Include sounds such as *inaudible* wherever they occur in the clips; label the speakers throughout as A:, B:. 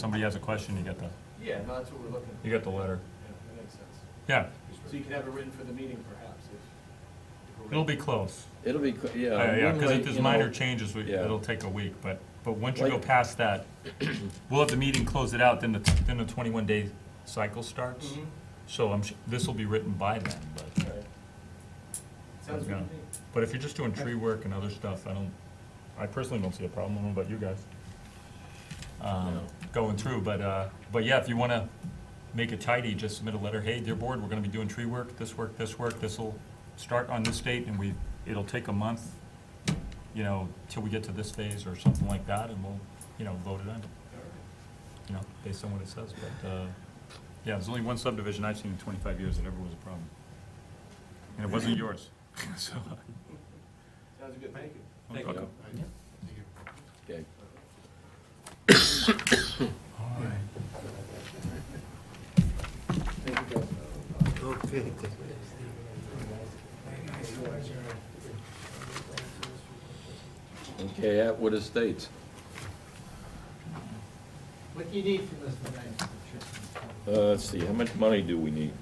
A: somebody has a question, you get the,
B: Yeah, no, that's what we're looking.
A: you get the letter.
B: Yeah, that makes sense.
A: Yeah,
B: So you could have it written for the meeting perhaps if- if. we're
A: it'll
B: ready.
A: be close.
C: It'll be, qu-
A: Uh,
C: yeah.
A: Yeah, because
C: normally,
A: if there's
C: you know,
A: minor changes, we-
C: yeah.
A: it'll take a week, but, but once you go
C: Like-
A: past that, *clears throat* we'll have the meeting, close it out, then the, then the twenty-one day cycle starts.
D: Mm-hmm.
C: Mm-hmm.
B: Mhm.
A: So I'm, this will be written by then, but,
B: All right. Sounds good to me.
A: but if you're just doing tree work and other stuff, I don't, I personally don't see a problem, I don't know about you guys. Um, going through, but, uh, but yeah, if you wanna make it tidy, just submit a letter, hey, dear board, we're gonna be doing tree work, this work, this work, this'll start on this date, and we, it'll take a month, you know, till we get to this phase or something like that, and we'll, you know, vote it on,
B: All right.
A: you know, based on what it says, but, uh, yeah, there's only one subdivision I've seen in twenty-five years that ever was a problem. And it wasn't yours, *laughs* so. uh,
B: Sounds good, thank you.
C: Thank
A: okay.
C: you. okay.
A: All right.
E: Okay.
C: Okay, Atwood Estates.
F: What do you need from us tonight?
C: Uh, let's see, how much money do we need?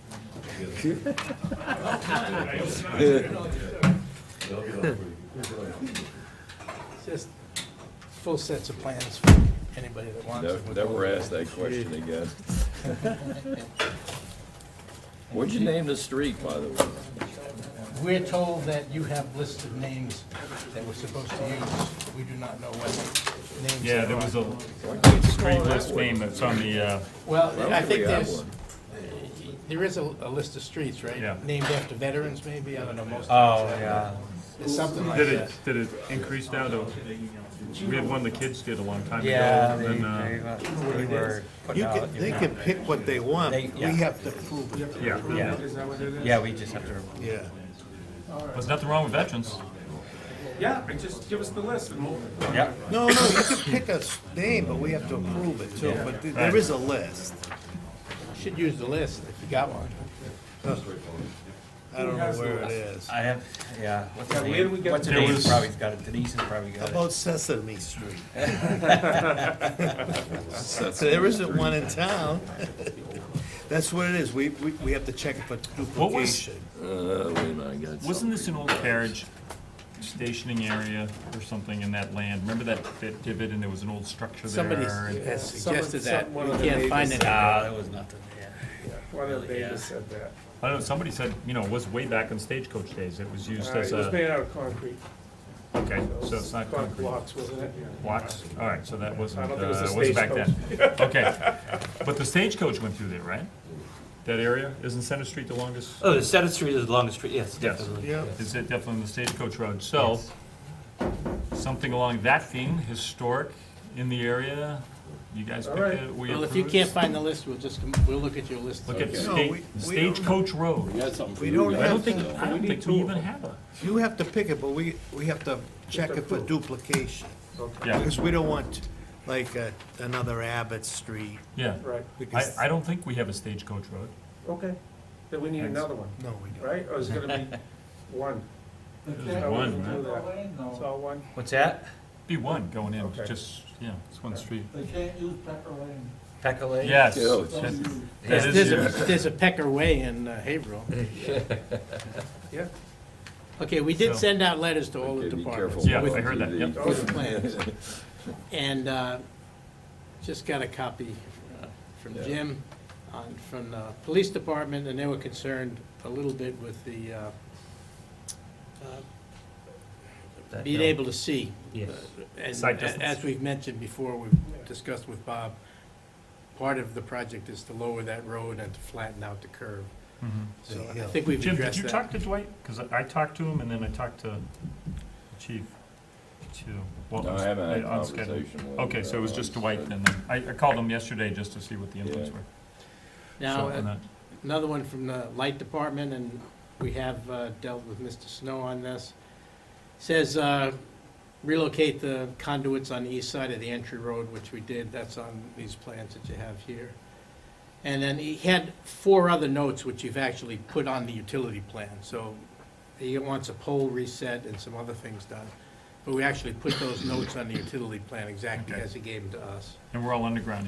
G: Just full sets of plans for anybody that wants. it.
C: Never asked that question again. What'd you name the street, by the way?
G: We're told that you have lists of names that we're supposed to use. We do not know what names.
A: Yeah,
G: they
A: there
G: are.
A: was a street list name that's on the, uh,
G: Well,
C: Well,
G: I think
C: we have
G: there's, uh,
C: one.
G: there is a, a list of streets, right?
A: Yeah.
G: Named after veterans, maybe, I don't know, most.
A: Oh, yeah.
G: It's something like
A: Did
G: that.
A: it, did it increase now though? We had one the kids did a long time ago.
H: Yeah,
A: and
H: they,
A: then, uh,
H: they, uh, they were putting
E: You can,
H: out,
E: they can pick what they want,
H: They-
E: we
H: yeah.
E: have to prove it,
A: uh, Yeah,
H: yeah, yeah, we just have to,
E: yeah.
A: there's nothing wrong with veterans.
D: Yeah, and just give us the list and we'll.
H: yeah,
E: No, no, you can pick a s- name, but we have to approve it too, but th- there is a list.
G: Should use the list if you got one.
E: I don't know where it is.
H: I have, yeah, what's her
D: Yeah, where do we
H: name,
D: get
H: what's her
A: There
H: name,
A: was-
H: probably got it, Denise has probably got it.
E: About Sesame Street. *laughs* So there isn't one in town. *laughs* That's what it is, we, we, we have to check it for
A: What was-
E: duplication.
C: Uh, wait a minute, I got something.
A: Wasn't this an old carriage stationing area or something in that land? Remember that bit divot and there was an old structure
G: Somebody
A: there? and-
G: has suggested that.
D: someone
G: We
D: on the
G: can't find
D: neighbors-
G: it.
H: Ah,
I: uh,
H: there was nothing there.
D: One of the
H: Yeah.
D: neighbors said that.
A: I don't know, somebody said, you know, it was way back in stagecoach days. It was used
D: Uh,
A: as
D: It was
A: a,
D: made out of concrete.
A: okay,
D: it was
A: so it's not
D: con-
A: concrete.
D: Blocks, wasn't it?
A: Blocks? All right, so that wasn't,
D: I
A: uh,
D: don't think it was the
A: wasn't back then. Okay. But the stagecoach went through there, right? That area? Isn't Center Street the longest?
I: Oh, the Senate Street is the longest street, yes,
A: Yes.
I: definitely.
E: Yeah,
A: is it definitely on the Stagecoach Road, so, something along that theme, historic in the area, you guys pick
D: All right.
A: it, we
G: Well,
A: approve.
G: if you
A: it?
G: can't find the list, we'll just, come- we'll look at your list.
A: Look at
C: Okay.
E: No,
A: Sta-
E: we- we don't-
A: Stagecoach
C: We
A: Road,
C: got something for
E: We
C: you
E: don't
C: guys.
A: I don't
E: have
A: think,
E: to,
A: I don't think we even have a,
E: you have to pick it, but we, we have to check it for duplication.
A: yeah,
E: Because we don't want, like, uh, another Abbott Street.
A: yeah.
D: Right,
A: I,
E: because-
A: I don't think we have a Stagecoach Road.
D: okay. Then we need another one,
E: No, we don't.
D: right? Or is it gonna
A: *laughs*
D: be one?
A: There's one, right?
D: It's all one?
H: What's that,
A: Be one going in,
D: Okay.
A: just, yeah, it's one street.
F: They can't use Pepper Lane.
H: Pecole?
A: Yes.
C: Yeah, it's-
F: Don't use.
G: There's,
A: That
G: there's
A: is
G: a,
A: yours.
G: there's a Pecker Way in uh, Haverhill.
D: Yeah.
G: Okay, we
A: So-
G: did send out letters to all the
C: Okay, be
G: departments.
C: careful.
A: Yeah,
G: with-
A: I heard that, yep.
G: With plans. And, uh, just got a copy uh, from
C: Yeah.
G: Jim on, from the police department, and they were concerned a little bit with the, uh, uh,
H: That
G: being
H: hill.
G: able to see. Uh,
I: Yes.
G: And
A: Sight
G: a-
A: distance.
G: as we've mentioned before, we've discussed with Bob, part of the project is to lower that road and to flatten out the curve.
A: Mhm.
G: So I
E: Yeah.
G: think we've
A: Jim, did
G: addressed
A: you
G: that.
A: talk to Dwight? Because I talked to him and then I talked to the chief, too. Well,
C: No, I haven't had a
A: on schedule.
C: conversation with.
A: Okay, so it was
C: uh,
A: just Dwight then. I, I called him yesterday just to see what the inputs
C: Yeah.
A: were.
G: Now, uh,
A: So, and uh, that-
G: Another one from the light department, and we have uh, dealt with Mr. Snow on this. Says uh, relocate the conduits on the east side of the entry road, which we did. That's on these plans that you have here. And then he had four other notes which you've actually put on the utility plan. So he wants a pole reset and some other things done. But we actually put those notes on the utility plan exactly
A: Okay.
G: as he gave them to us.
A: And we're all underground